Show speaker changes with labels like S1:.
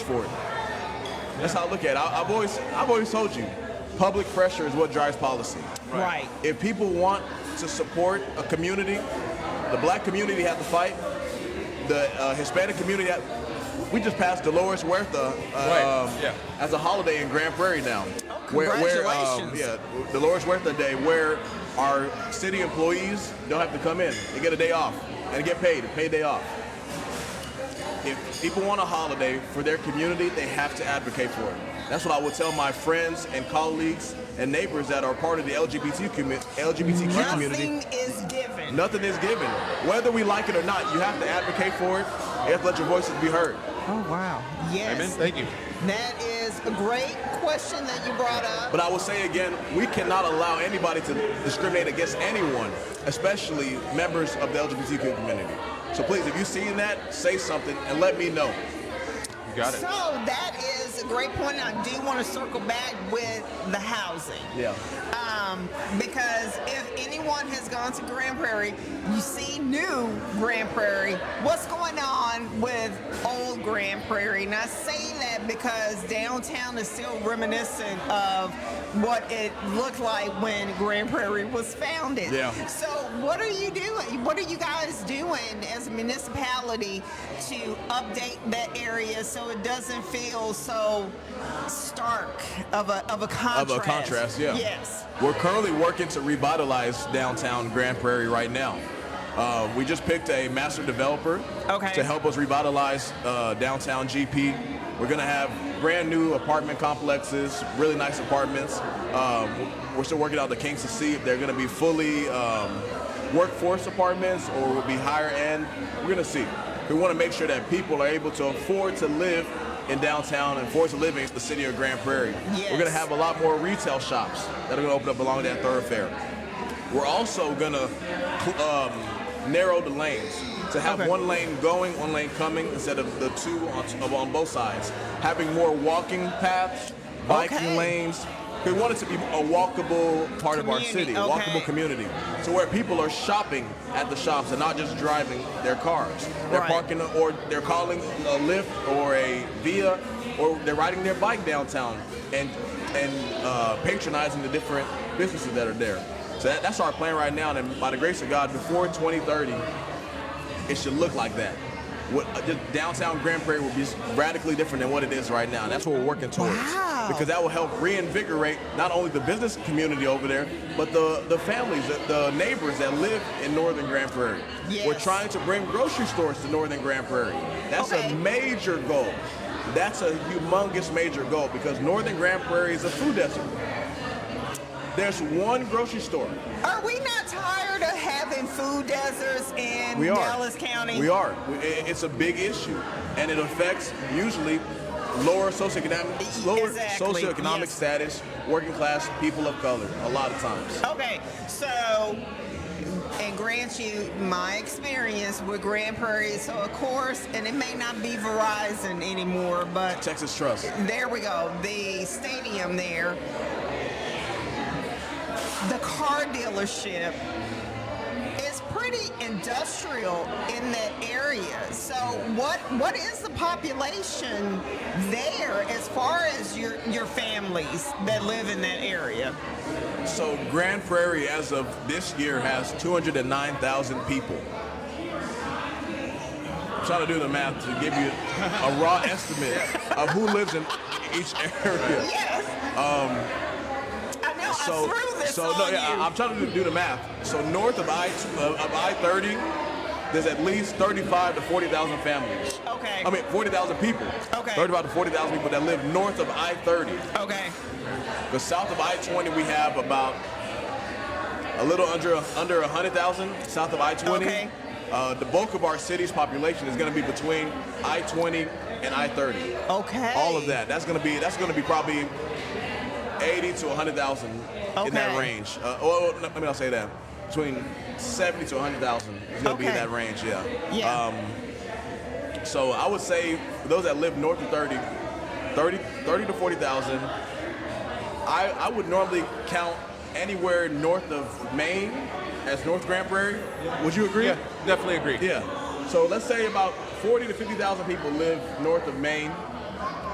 S1: for it. That's how I look at it. I, I've always, I've always told you, public pressure is what drives policy.
S2: Right.
S1: If people want to support a community, the black community had to fight. The uh, Hispanic community, had, we just passed Dolores Huerta uh,
S3: Right,
S1: um,
S3: yeah.
S1: as a holiday in Grand Prairie now.
S2: Oh,
S1: um,
S2: congratulations.
S1: yeah, Dolores Huerta Day, where our city employees don't have to come in. They get a day off and get paid, a paid day off. If people want a holiday for their community, they have to advocate for it. That's what I would tell my friends and colleagues and neighbors that are part of the LGBT commu- LGBTQ community.
S2: Nothing is given.
S1: Nothing is given. Whether we like it or not, you have to advocate for it. You have to let your voices be heard.
S2: Oh wow.
S3: Amen.
S2: Yes.
S3: Thank you.
S2: That is a great question that you brought up.
S1: But I will say again, we cannot allow anybody to discriminate against anyone, especially members of the LGBTQ community. So please, if you've seen that, say something and let me know.
S3: You got it.
S2: So that is a great point. and I do want to circle back with the housing.
S1: Yeah.
S2: Um, because if anyone has gone to Grand Prairie, you see new Grand Prairie. What's going on with old Grand Prairie? And I say that because downtown is still reminiscent of what it looked like when Grand Prairie was founded.
S1: Yeah.
S2: So what are you doing? What are you guys doing as a municipality to update that area so it doesn't feel so stark of a of a
S1: Of
S2: contrast?
S1: a contrast, yeah.
S2: Yes.
S1: We're currently working to revitalize downtown Grand Prairie right now. Uh, we just picked a master developer
S2: Okay.
S1: to help us revitalize uh, downtown GP. We're gonna have brand new apartment complexes, really nice apartments. Um, we're still working out the kinks to see if they're gonna be fully um, workforce apartments or will be higher end. We're gonna see. We want to make sure that people are able to afford to live in downtown and afford to live in the city of Grand Prairie. We're gonna
S2: Yes.
S1: have a lot more retail shops that are gonna open up along that thoroughfare. We're also gonna cl- um, narrow the lanes to have
S2: Okay.
S1: one lane going, one lane coming, instead of the two on, of- on both sides. Having more walking paths, biking
S2: Okay.
S1: lanes. We want it to be a walkable part of our city,
S2: Community,
S1: walkable
S2: okay.
S1: community, to where people are shopping at the shops and not just driving their cars. They're
S2: Right.
S1: parking or they're calling a Lyft or a Via, or they're riding their bike downtown and and uh, patronizing the different businesses that are there. So that, that's our plan right now, and by the grace of God, before 2030, it should look like that. What, uh, the downtown Grand Prairie will be radically different than what it is right now. And that's what we're working towards.
S2: Wow.
S1: Because that will help reinvigorate not only the business community over there, but the, the families, the, the neighbors that live in northern Grand Prairie. We're
S2: Yes.
S1: trying to bring grocery stores to northern Grand Prairie. That's
S2: Okay.
S1: a major goal. That's a humongous major goal because northern Grand Prairie is a food desert. There's one grocery store.
S2: Are we not tired of having food deserts in
S1: We are.
S2: Dallas County?
S1: We are. We- i- It's a big issue, and it affects usually lower socioeconomic, lower
S2: Exactly,
S1: socioeconomic
S2: yes.
S1: status, working class people of color. A lot of times.
S2: Okay, so and grant you my experience with Grand Prairie. So of course, and it may not be Verizon anymore, but
S1: Texas Trust.
S2: there we go. The stadium there, the car dealership is pretty industrial in that area. So what what is the population there as far as your your families that live in that area?
S1: So Grand Prairie, as of this year, has 209,000 people. I'm trying to do the math to give you a raw estimate of who lives in each area.
S2: Yes. Um. I know. I
S1: So,
S2: threw this
S1: so
S2: on
S1: no, yeah,
S2: you.
S1: I- I'm trying to do- do the math. So north of I of I 30, there's at least 35 to 40,000 families.
S2: okay.
S1: I mean, 40,000 people.
S2: Okay.
S1: 35 to 40,000 people that live north of I 30.
S2: okay.
S1: Because south of I 20, we have about a little under under 100,000 south of I 20.
S2: Okay.
S1: Uh, the bulk of our city's population is going to be between I 20 and I 30.
S2: Okay.
S1: All of that. That's going to be that's going to be probably 80 to 100,000 in that
S2: Okay.
S1: range. Uh, well, let me not say that. Between 70 to 100,000 is going to be in
S2: Okay.
S1: that range. Yeah. Um,
S2: Yeah.
S1: So I would say for those that live north of 30, 30, 30 to 40,000, I, I would normally count anywhere north of Maine as North Grand Prairie. Would you agree?
S3: Yeah, definitely agree.
S1: Yeah. So let's say about 40 to 50,000 people live north of Maine.